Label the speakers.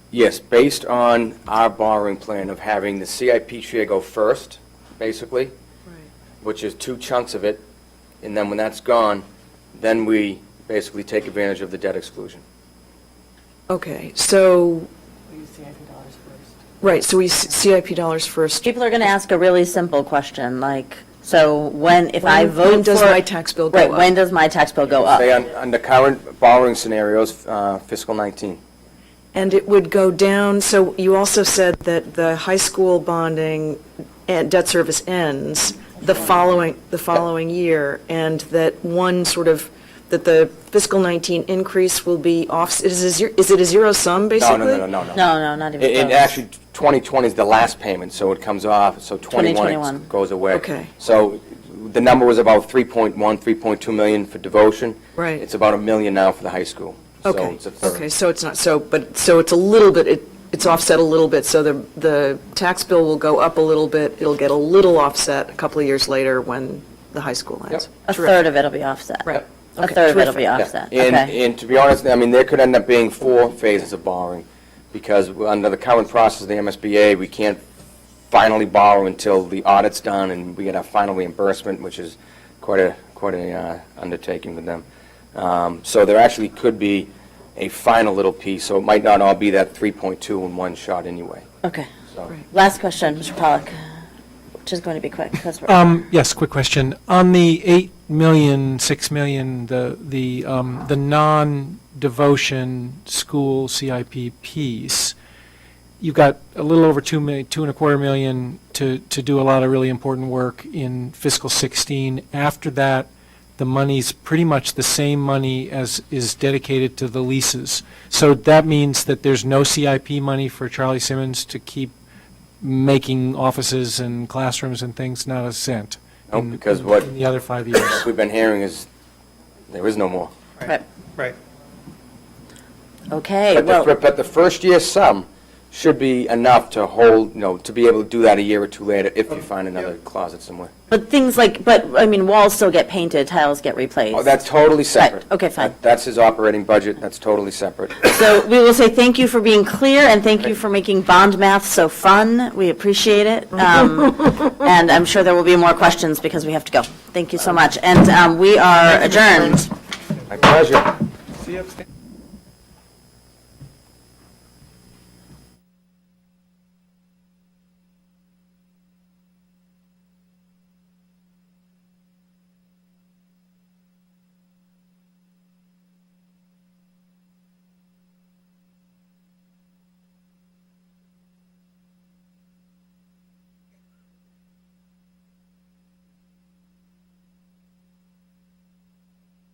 Speaker 1: Yes, based on our borrowing plan of having the CIP share go first, basically, which is two chunks of it, and then when that's gone, then we basically take advantage of the debt exclusion.
Speaker 2: Okay, so,
Speaker 3: We use CIP dollars first.
Speaker 2: right, so we, s- CIP dollars first.
Speaker 4: People are going to ask a really simple question, like, so when, if I
Speaker 2: When-
Speaker 4: vote for...
Speaker 2: when does my tax bill go
Speaker 4: Right,
Speaker 2: up?
Speaker 4: when does my tax bill go up?
Speaker 1: Say, un- under current borrowing scenarios, uh, fiscal 19.
Speaker 2: And it would go down, so you also said that the high school bonding and debt service ends the following, the following year, and that one sort of, that the fiscal 19 increase will be off, is it a zero- is it a zero sum,
Speaker 1: No,
Speaker 2: basically?
Speaker 1: no, no, no, no.
Speaker 4: No, no, not even
Speaker 1: It- it
Speaker 4: close.
Speaker 1: actually, 2020 is the last payment, so it comes off, so 21 it
Speaker 4: 2021.
Speaker 1: goes away.
Speaker 2: Okay.
Speaker 1: So the number was about 3.1, 3.2 million for devotion.
Speaker 2: Right.
Speaker 1: It's about a million now for the high school. So
Speaker 2: Okay,
Speaker 1: it's a third.
Speaker 2: okay, so it's not, so, but, so it's a little bit, it it's offset a little bit, so the, the tax bill will go up a little bit, it'll get a little offset a couple of years later when the high school ends.
Speaker 4: A
Speaker 2: Terrific.
Speaker 4: third of it'll be offset.
Speaker 2: Right.
Speaker 4: A
Speaker 2: Okay,
Speaker 4: third of it'll
Speaker 2: terrific.
Speaker 4: be
Speaker 1: Yeah.
Speaker 4: offset,
Speaker 1: And,
Speaker 4: okay.
Speaker 1: and to be honest, I mean, there could end up being four phases of borrowing, because under the current process of the MSBA, we can't finally borrow until the audit's done and we get our final reimbursement, which is quite a, quite a uh, undertaking with them. Um, So there actually could be a final little piece, so it might not all be that 3.2 in one shot anyway,
Speaker 4: Okay.
Speaker 1: so.
Speaker 2: Right.
Speaker 4: Last question, Mr. Pollak, which is going to be quick, because we're...
Speaker 5: Um, yes, quick question. On the 8 million, 6 million, the, the, um, the non-devotion school CIP piece, you've got a little over 2 million, 2 and a quarter million to, to do a lot of really important work in fiscal 16. After that, the money's pretty much the same money as is dedicated to the leases. So that means that there's no CIP money for Charlie Simmons to keep making offices and classrooms and things not a cent.
Speaker 1: No,
Speaker 5: in-
Speaker 1: because what-
Speaker 5: In the other five years.
Speaker 1: What we've been hearing is, there is no more.
Speaker 4: Right.
Speaker 6: Right.
Speaker 4: Okay,
Speaker 1: But the,
Speaker 4: well,
Speaker 1: fir- but the first year sum should be enough to hold, you know, to be able to do that a year or two later if you find another closet somewhere.
Speaker 4: but things like, but, I mean, walls still get painted, tiles get replaced.
Speaker 1: Oh, that's totally separate.
Speaker 4: okay, fine.
Speaker 1: That- That's his operating budget, that's totally separate.
Speaker 4: So we will say thank you for being clear, and thank you for making bond math so fun. We appreciate it. Um, And I'm sure there will be more questions, because we have to go. Thank you so much. And um, we are adjourned.
Speaker 1: My pleasure.
Speaker 6: See you upstairs.